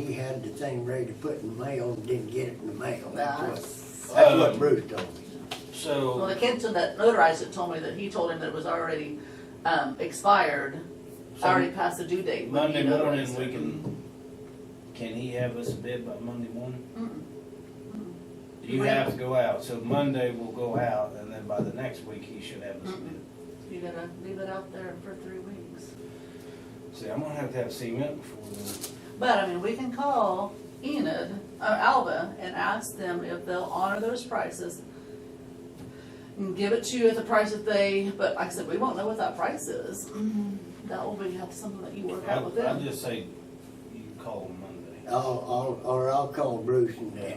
had the thing ready to put in the mail and didn't get it in the mail. That's what, That's- that's what Bruce told me. Well, the Uh, So, Kenton that notarized it told me that he told him that it was already, um, expired, already so past the due date. when he Monday morning, notarized we it. can, can he have us a bid by Monday morning? Mm. You have to go out, so Monday we'll go out, and then by the next week, he should have us a bid. You gotta leave it out there for three weeks. See, I'm gonna have to have cement before then. But, I mean, we can call Enid, or Alba, and ask them if they'll honor those prices. And give it to you at the price that they, but like I said, we won't know what that price is. That will be, have something that you work out with I- I'd them. just say, you call him Monday. I'll, I'll, or I'll call Bruce and uh,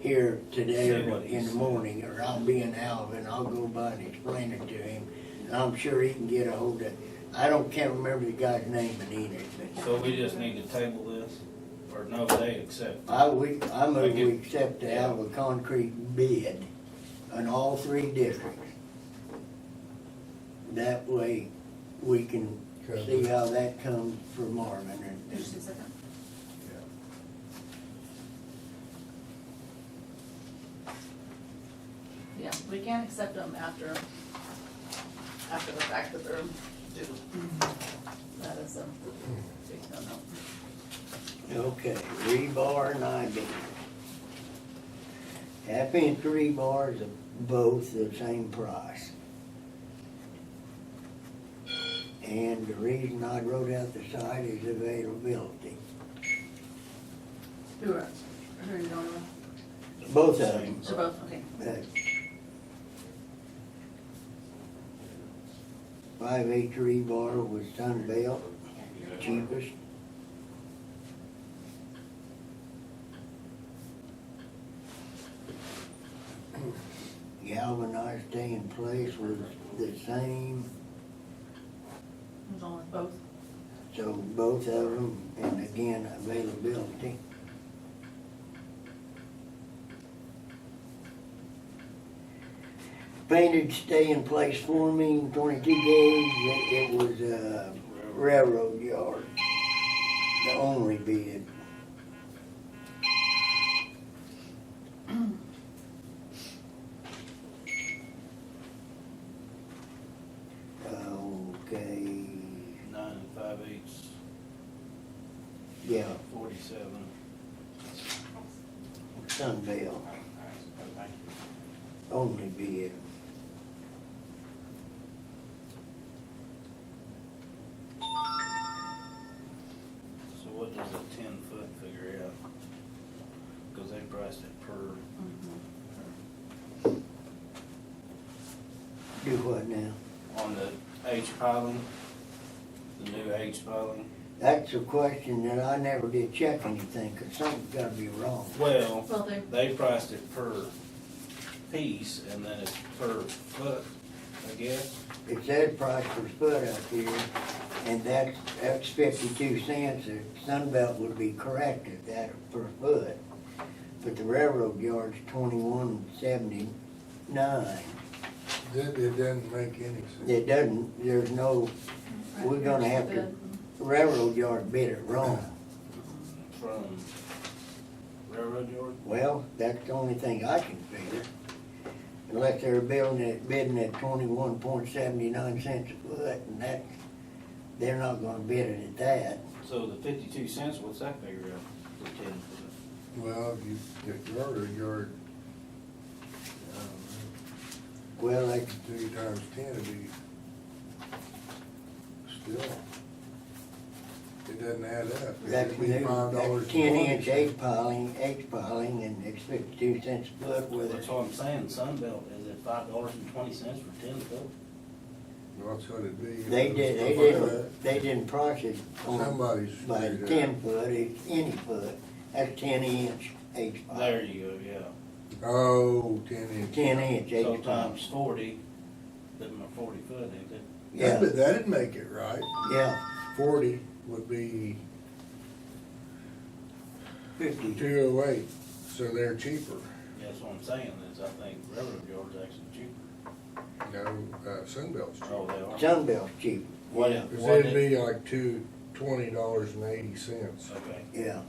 here today See or what he in the says. morning, or I'll be in Alva and I'll go by and explain it to him. And I'm sure he can get a hold of, I don't, can't remember the guy's name in Enid, but So we just need to table this, or no, they accept. I, we, I move Okay. we accept the Alva concrete bid on all three districts. That way, we can see how that comes for Marvin and- and Just a second. Yeah, we can accept them after, after the fact that they're due. That is a big no-no. Okay, rebar and I-beam. Half inch rebars are both the same price. And the reason I wrote out the site is availability. Who are, who are you going with? Both of them. So both, okay. Five H rebar was Sunbelt, cheapest. Galvanized stay in place was the same, Who's on with both? so both of them, and again, availability. Painted stay in place forming, twenty-two gauge, it, it was, uh, railroad yard. The only bid. Mm-hmm. uh, Okay, Nine and five eighths, yeah, forty-seven. Sunbelt, only bid. So what does a ten foot figure out? Cause they priced it per, Do what now? on the H piling, the new H piling. That's a question that I never did check anything, cause something's gotta be wrong. Well, Well, they, they priced it per piece and then it's per foot, I guess. It says price per foot up here, and that's, that's fifty-two cents, if Sunbelt would be correct at that per foot. But the railroad yard's twenty-one seventy-nine. That, it doesn't make any sense. It doesn't, there's no, We're gonna have to- railroad yard bid it wrong. from railroad yard? Well, that's the only thing I can figure. Unless they're building it, bidding at twenty-one point seventy-nine cents a foot, and that, they're not gonna bid it at that. So the fifty-two cents, what's that figure out for ten foot? Well, if you, if you order um, your, Well, that's two times ten, it'd be still, it doesn't add up. That's It'd be new, five dollars that's and ten one inch cent. H piling, H piling, and it's fifty-two cents a foot Well, with that's it. what I'm saying, Sunbelt is at five dollars and twenty cents for ten foot. Well, That's what it'd be. They did, they didn't, they didn't price it on, Somebody's. by figured it ten foot, it's any foot, that's ten inch H There piling. you go, yeah. out. Oh, ten inch. Ten inch So H piling, times forty, them are forty foot, ain't it? yeah, That'd- That'd make it right. yeah, Forty would be fifty, two oh eight, so they're cheaper. That's what I'm saying, is I think railroad yard's actually cheaper. No, uh, Sunbelt's cheaper. Oh, they are. Sunbelt's cheap, What, yeah, if- Cause what it'd if, be like two, twenty dollars and eighty cents. okay, yeah.